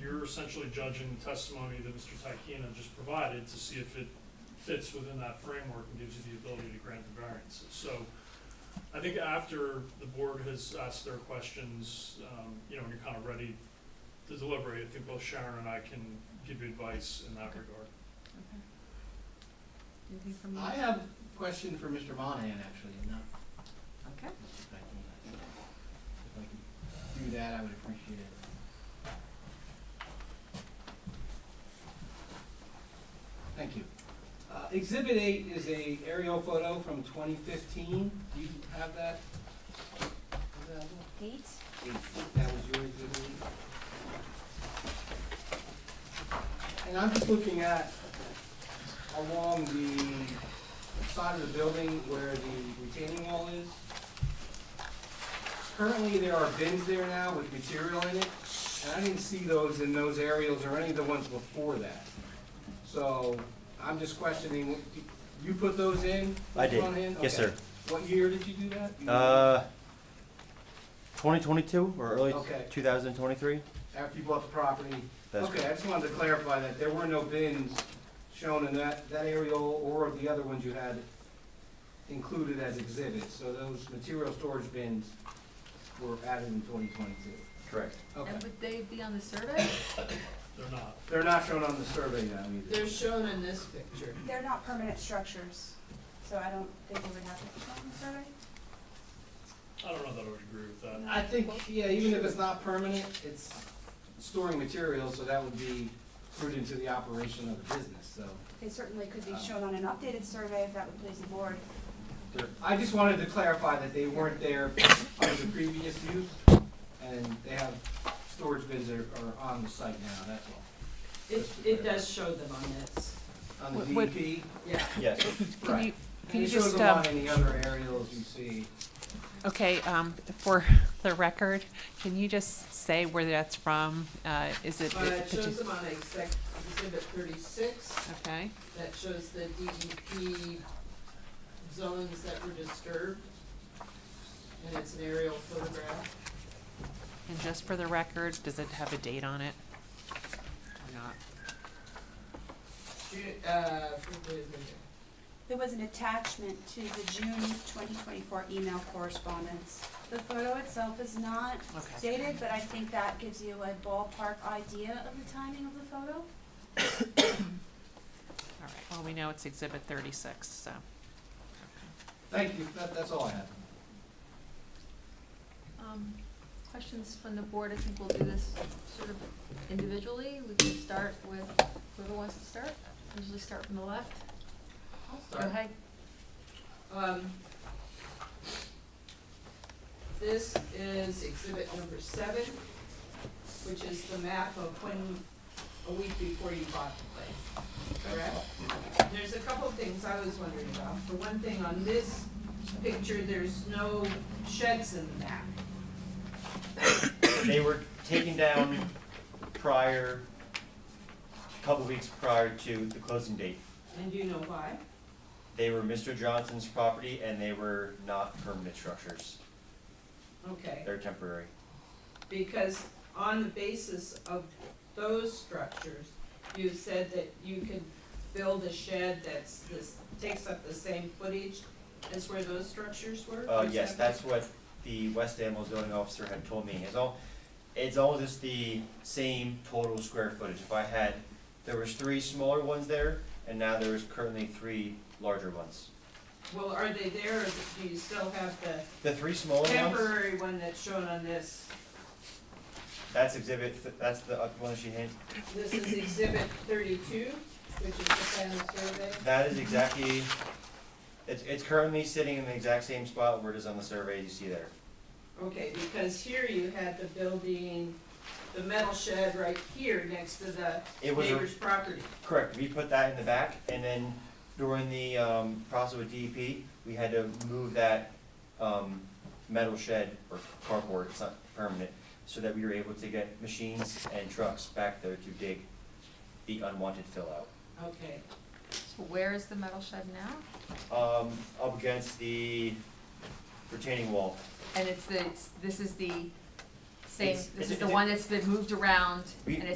you're essentially judging the testimony that Mr. Tykina just provided to see if it fits within that framework and gives you the ability to grant the variances. So I think after the board has asked their questions, um, you know, and you're kind of ready to deliberate, I think both Sharon and I can give you advice in that regard. Okay. Anything from you? I have a question for Mr. Monahan, actually, and not Okay. Mr. Dyckman. If I could do that, I would appreciate it. Thank you. Uh, Exhibit eight is a aerial photo from twenty fifteen. Do you have that? available? Eight? That was your exhibit eight? And I'm just looking at along the side of the building where the retaining wall is. Currently, there are bins there now with material in it, and I didn't see those in those aerials or any of the ones before that. So I'm just questioning, you put those in? I did. Front end? Yes, Okay. sir. What year did you do that? You- Uh, 2022 or early Okay. 2023? After you bought the property? That's Okay, I just wanted to clarify that there were no bins shown in that, that aerial or the other ones you had included as exhibits, so those material storage bins were added in twenty twenty-two. correct. Okay, And would they be on the survey? They're not. they're not shown on the survey now either. They're shown in this picture. They're not permanent structures, so I don't think we would have to put them on the survey. I don't know that I would agree with that. I think, yeah, even if it's not permanent, it's storing materials, so that would be prudent to the operation of the business, so. They certainly could Oh. be shown on an updated survey if that would please the board. Sure. I just wanted to clarify that they weren't there under the previous use, and they have, storage bins are, are on the site now, that's all. It, it does show them on this, On the What- DEP, yeah. Yes. Can you, right. And can you it shows just, them um, on any other aerials you see. okay, um, for the record, can you just say where that's from? Uh, is it? Uh, it did you- shows them on exec, exhibit thirty-six, Okay, that shows the DEP zones that were disturbed. And it's an aerial photograph. and just for the record, does it have a date on it? Or not? Ju- uh, wait a minute. There was an attachment to the June 2024 email correspondence. The photo itself is not Okay. dated, but I think that gives you a ballpark idea of the timing of the photo. All right, well, we know it's exhibit thirty-six, so. Thank you, that, that's all I have. Um, questions from the board, I think we'll do this sort of individually, we can start with whoever wants to start, usually start from the left. I'll Go start. ahead, Um, This is exhibit number seven, which is the map of when, a week before you bought the place, correct? There's a couple of things I was wondering about. For one thing, on this picture, there's no sheds in the map. They were taken down prior, a couple weeks prior to the closing date. And do you know why? They were Mr. Johnson's property and they were not permanent structures. Okay, They're temporary. because on the basis of those structures, you said that you could build a shed that's this, takes up the same footage as where those structures were? Uh, for yes, example? that's what the West Amwell zoning officer had told me. It's all, it's all just the same total square footage. If I had, there was three smaller ones there, and now there is currently three larger ones. Well, are they there, or do you still have the The three smaller ones, temporary one that's shown on this? that's exhibit, th- that's the up- one that she handed. This is exhibit thirty-two, which is the final survey. That is exactly, it's, it's currently sitting in the exact same spot where it is on the survey you see there. Okay, because here you had the building, the metal shed right here next to the It was, a- neighbor's property. correct, we put that in the back, and then during the, um, process with DEP, we had to move that, um, metal shed or cardboard, it's not permanent, so that we were able to get machines and trucks back there to dig the unwanted fill out. Okay, so where is the metal shed now? Um, up against the retaining wall, And it's the, it's- this is the same, It's- this it's- is the it's- one that's been moved around, We- and